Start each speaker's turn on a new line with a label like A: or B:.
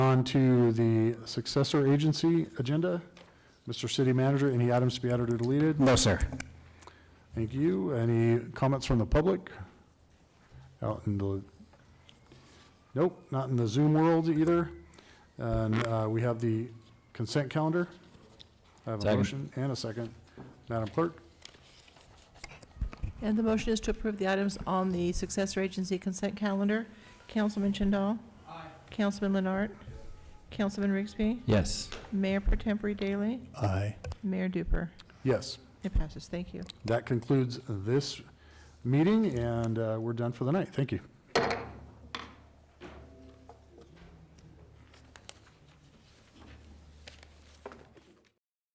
A: on to the successor agency agenda. Mr. City Manager, any items to be added or deleted?
B: No, sir.
A: Thank you. Any comments from the public? Out in the, nope, not in the Zoom world either. And uh, we have the consent calendar. I have a
B: Second.
A: motion and a second. Madam Clerk?
C: And the motion is to approve the items on the successor agency consent calendar. Councilman Jindal? Aye. Councilman Leonard? Councilman Rigsby?
B: Yes.
C: Mayor Per Tempore Daily?
A: Aye.
C: Mayor Duper?
A: Yes.
C: It passes, thank you.
A: That concludes this meeting, and uh, we're done for the night. Thank you.